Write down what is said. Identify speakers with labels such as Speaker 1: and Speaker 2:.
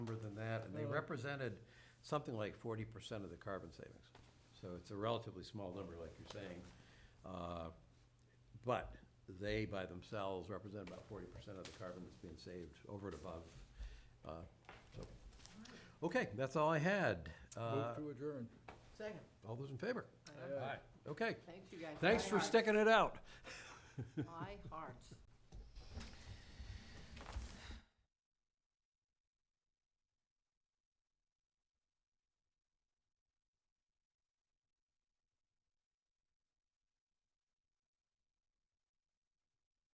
Speaker 1: represented something like forty percent of the carbon savings. So it's a relatively small number, like you're saying. Uh, But they by themselves represent about forty percent of the carbon that's being saved over and above. uh, so. Okay, that's all I had. Uh,
Speaker 2: Move to adjourn.
Speaker 3: Second.
Speaker 1: All those in favor?
Speaker 3: I know.
Speaker 1: Okay,
Speaker 3: Thanks, you guys.
Speaker 1: Uh, thanks
Speaker 3: My
Speaker 1: for
Speaker 3: heart-
Speaker 1: sticking it out.
Speaker 3: My hearts.